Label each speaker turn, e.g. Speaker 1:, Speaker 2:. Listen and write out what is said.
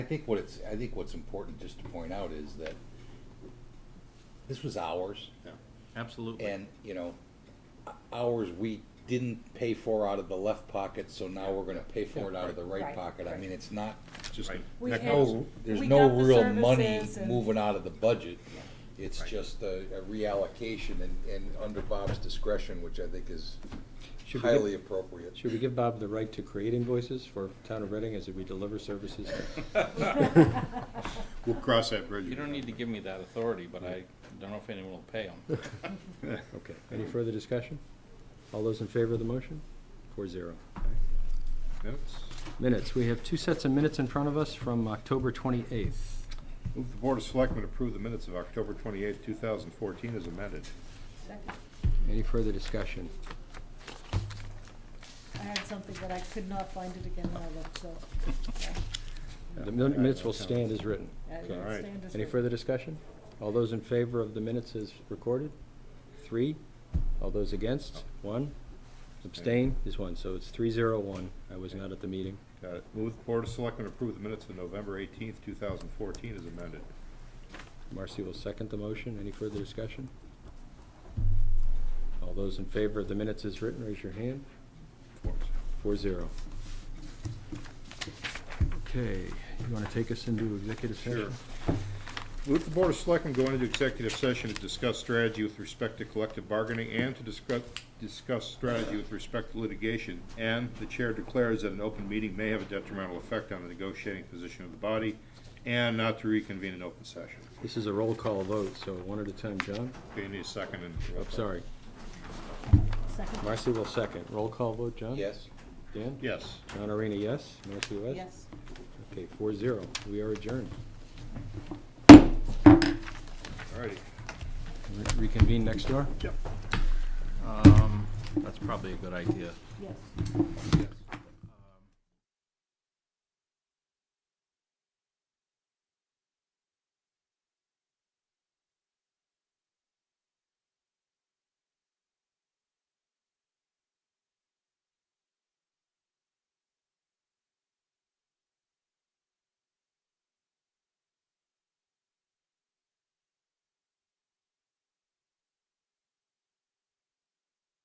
Speaker 1: I think what it's, I think what's important just to point out is that this was ours,
Speaker 2: Yeah, absolutely.
Speaker 1: and, you know, ours we didn't pay for out of the left pocket, so now we're gonna pay for it out of the right
Speaker 3: Right,
Speaker 1: pocket. I
Speaker 3: right.
Speaker 1: mean, it's not, just,
Speaker 2: Right.
Speaker 3: We
Speaker 1: there's
Speaker 3: had-
Speaker 1: no, there's
Speaker 3: we
Speaker 1: no
Speaker 3: got the
Speaker 1: real money
Speaker 3: services and-
Speaker 1: moving out of the budget. It's
Speaker 2: Right.
Speaker 1: just a a reallocation and, and under Bob's discretion, which I think is
Speaker 4: Should we give-
Speaker 1: highly appropriate.
Speaker 4: Should we give Bob the right to create invoices for Town of Reading as we deliver services?
Speaker 2: We'll cross that bridge.
Speaker 5: You don't need to give me that authority, but I don't know if anyone will pay them.
Speaker 4: Okay, any further discussion? All those in favor of the motion? Four zero.
Speaker 2: Minutes.
Speaker 4: Minutes, we have two sets of minutes in front of us from October 28th.
Speaker 2: Move the Board of Selectmen approve the minutes of October twenty-eighth, two thousand fourteen as amended.
Speaker 3: Second.
Speaker 4: Any further discussion?
Speaker 3: I had something, but I could not find it again when I looked, so. yeah,
Speaker 4: The min- minutes will stand as written.
Speaker 3: I
Speaker 2: Okay. All right.
Speaker 3: stand as
Speaker 4: Any
Speaker 3: written.
Speaker 4: further discussion? All those in favor of the minutes as recorded? Three. All those against? One. Abstain is one, so it's three zero one. I was not at the meeting.
Speaker 2: Got it. Uh, Move the Board of Selectmen approve the minutes of November eighteenth, two thousand fourteen as amended.
Speaker 4: Marcy will second the motion. Any further discussion? All those in favor of the minutes as written, raise your hand.
Speaker 2: Four zero.
Speaker 4: Four zero. Okay, you want to take us into executive
Speaker 2: Sure.
Speaker 4: session?
Speaker 2: Move the Board of Selectmen go into executive session to discuss strategy with respect to collective bargaining and to discuss, discuss strategy with respect to litigation. And the Chair declares that an open meeting may have a detrimental effect on the negotiating position of the body and not to reconvene an open session.
Speaker 4: This is a roll call vote, so one at a time. John?
Speaker 2: Okay, you need a second and.
Speaker 4: Oh, sorry.
Speaker 3: Second,
Speaker 4: Marcy will second. Roll call vote, John?
Speaker 1: Yes?
Speaker 4: Dan?
Speaker 2: Yes.
Speaker 4: John Arena, yes. Marcy West?
Speaker 3: yes.
Speaker 4: Okay, four zero. We are adjourned.
Speaker 2: All righty.
Speaker 4: Re- Reconvene next door?
Speaker 2: Yep.
Speaker 5: Um, that's probably a good idea.
Speaker 3: Yes.
Speaker 2: Yes.